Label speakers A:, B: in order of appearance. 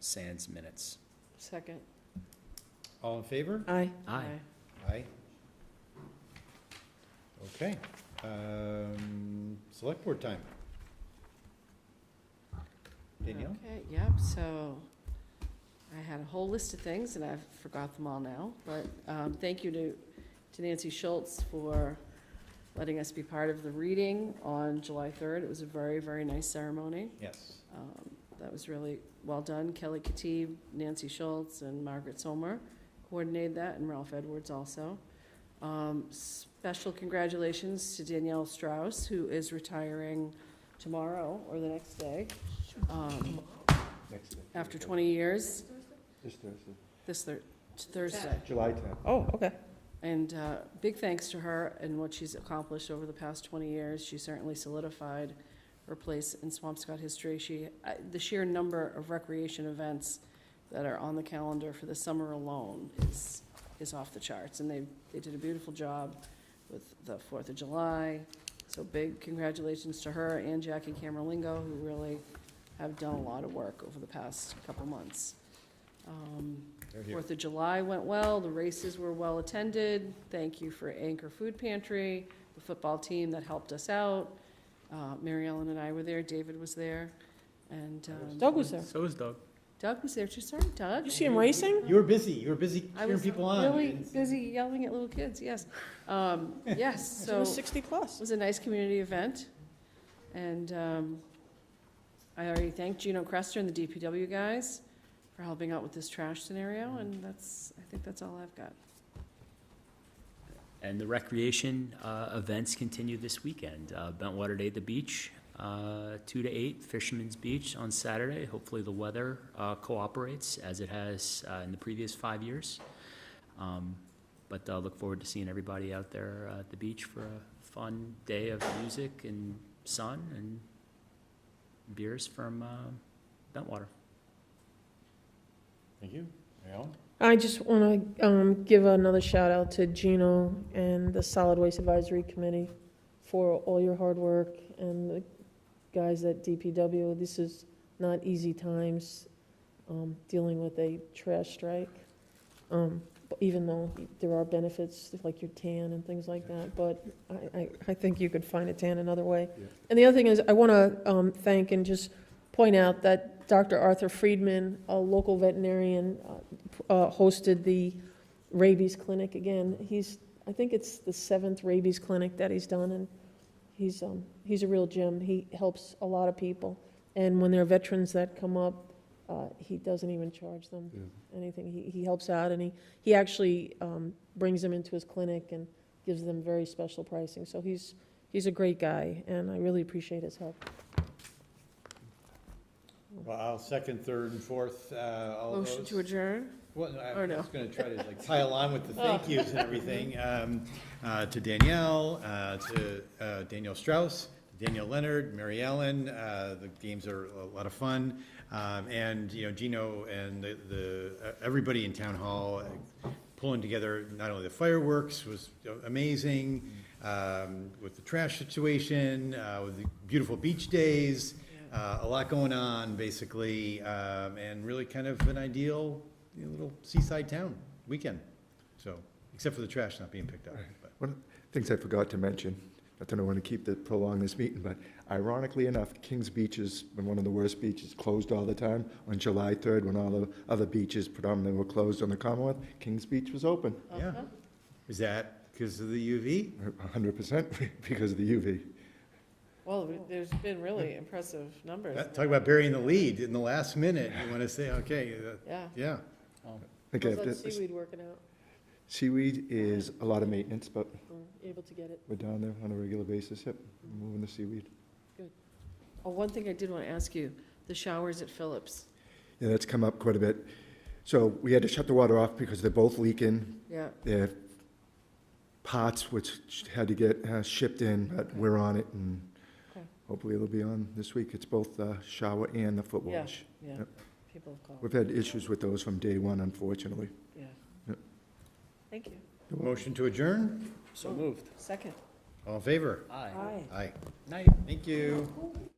A: Sands minutes.
B: Second.
C: All in favor?
B: Aye.
A: Aye.
C: Aye. Okay, um, select board time. Danielle?
B: Okay, yep, so I had a whole list of things and I've forgot them all now, but um, thank you to to Nancy Schultz for letting us be part of the reading on July 3rd. It was a very, very nice ceremony.
C: Yes.
B: Um, That was really well done. Kelly Katib, Nancy Schultz, and Margaret Somer coordinated that, and Ralph Edwards also. Um, Special congratulations to Danielle Strauss, who is retiring tomorrow or the next day, um,
D: Next day.
B: after 20 years,
D: This Thursday.
B: this Thur- Thursday.
D: July tenth.
E: Oh, okay.
B: And uh, big thanks to her and what she's accomplished over the past 20 years. She certainly solidified her place in Swampscott history. She, I- the sheer number of recreation events that are on the calendar for the summer alone is, is off the charts. And they, they did a beautiful job with the Fourth of July. So big congratulations to her and Jackie Camerlingo, who really have done a lot of work over the past couple months. Um,
C: They're here.
B: Fourth of July went well, the races were well-attended. Thank you for Anchor Food Pantry, the football team that helped us out. Uh, Mary Ellen and I were there, David was there, and um,
E: Doug was there.
A: So is Doug.
B: Doug was there too, sorry, Doug.
E: You see him racing?
C: You were busy, you were busy
B: I
C: cheering
B: was
C: people on.
B: really busy yelling at little kids, yes. Um, Yes,
E: He's
B: so.
E: in the sixty
B: It
E: plus.
B: was a nice community event, and um, I already thanked Gino Crester and the DPW guys for helping out with this trash scenario,
C: Mm.
B: and that's, I think that's all I've got.
A: And the recreation uh, events continue this weekend. Uh, Bentwater Day at the beach, uh, 2 to 8, Fisherman's Beach on Saturday. Hopefully, the weather uh, cooperates as it has uh, in the previous five years. Um, But I look forward to seeing everybody out there uh, at the beach for a fun day of music and sun and beers from uh, Bentwater.
C: Thank you. Mary Ellen?
E: I just want to um, give another shout out to Gino and the Solid Waste Advisory Committee for all your hard work and the guys at DPW. This is not easy times um, dealing with a trash strike. Um, but even though there are benefits like your tan and things like that, but I, I, I think you could find a tan another way.
D: Yeah.
E: And the other thing is, I want to um, thank and just point out that Dr. Arthur Friedman, a local veterinarian, uh, uh, hosted the rabies clinic again. He's, I think it's the seventh rabies clinic that he's done, and he's, um, he's a real gem. He helps a lot of people. And when there are veterans that come up, uh, he doesn't even charge them anything. He, he helps out, and he, he actually, um, brings them into his clinic and gives them very special pricing. So he's, he's a great guy, and I really appreciate his help.
C: Well, I'll second, third, and fourth, uh, all those.
B: Motion to adjourn?
C: Well, no, I
B: or no? Oh.
C: was gonna try to like pile on with the thank yous and everything, um, uh, to Danielle, uh, to, uh, Daniel Strauss, Daniel Leonard, Mary Ellen, uh, the games are a lot of fun. Um, and, you know, Gino and the, the, uh, everybody in town hall uh, pulling together, not only the fireworks was amazing, um, with the trash situation, uh, with the beautiful beach days, uh, a lot going on, basically, um, and really kind of an ideal you know, little seaside town weekend. So, except for the trash not being picked up. but-
D: One of the things I forgot to mention, I don't want to keep the, prolong this meeting, but ironically enough, Kings Beach has been one of the worst beaches, closed all the time. On July third, when all the other beaches predominantly were closed on the Commonwealth, Kings Beach was open,
C: Yeah. Is that because of the UV?
D: hundred percent because of the UV.
B: Well, there's been really impressive numbers,
C: That- Talk about burying the lead in the last minute. You want to say, okay, uh,
B: yeah.
C: yeah.
D: I think I
E: How's
D: have
E: that
D: to-
E: seaweed working out?
D: Seaweed is a lot of maintenance, but
E: Mm, Able to get it?
D: we're down there on a regular basis, yep, moving the seaweed.
B: Oh, one thing I did want to ask you, the showers at Phillips,
D: Yeah, that's come up quite a bit. So we had to shut the water off because they're both leaking,
B: yeah.
D: their pots, which had to get uh, shipped in, but we're on it, and
B: Okay.
D: hopefully it'll be on this week. It's both the shower and the foot
B: Yeah.
D: wash.
B: Yeah,
D: Yep.
B: people have called,
D: We've had issues with those from day one, unfortunately.
B: yeah.
D: Yep.
B: Thank you.
C: Motion to adjourn?
A: So moved.
B: Second.
C: All in favor?
A: Aye.
C: Aye.
A: Night.
C: Thank you.